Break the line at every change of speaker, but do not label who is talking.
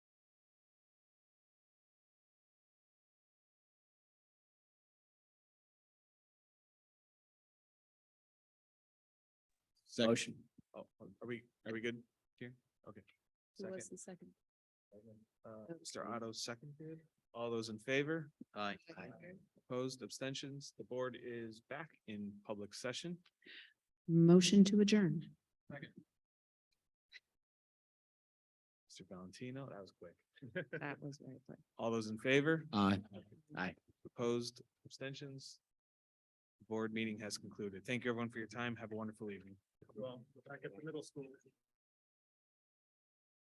Second.
Motion.
Oh, are we, are we good here? Okay.
Who
Second.
was the second?
Uh, Mr. Otto seconded. All those in favor?
Aye.
Opposed, abstentions? The board is back in public session.
Motion to adjourn.
Mr. Valentino, that was quick.
That was very quick.
All those in favor?
Aye. Aye.
Opposed, abstentions? Board meeting has concluded. Thank you everyone for your time. Have a wonderful evening.
Well, back at the middle school.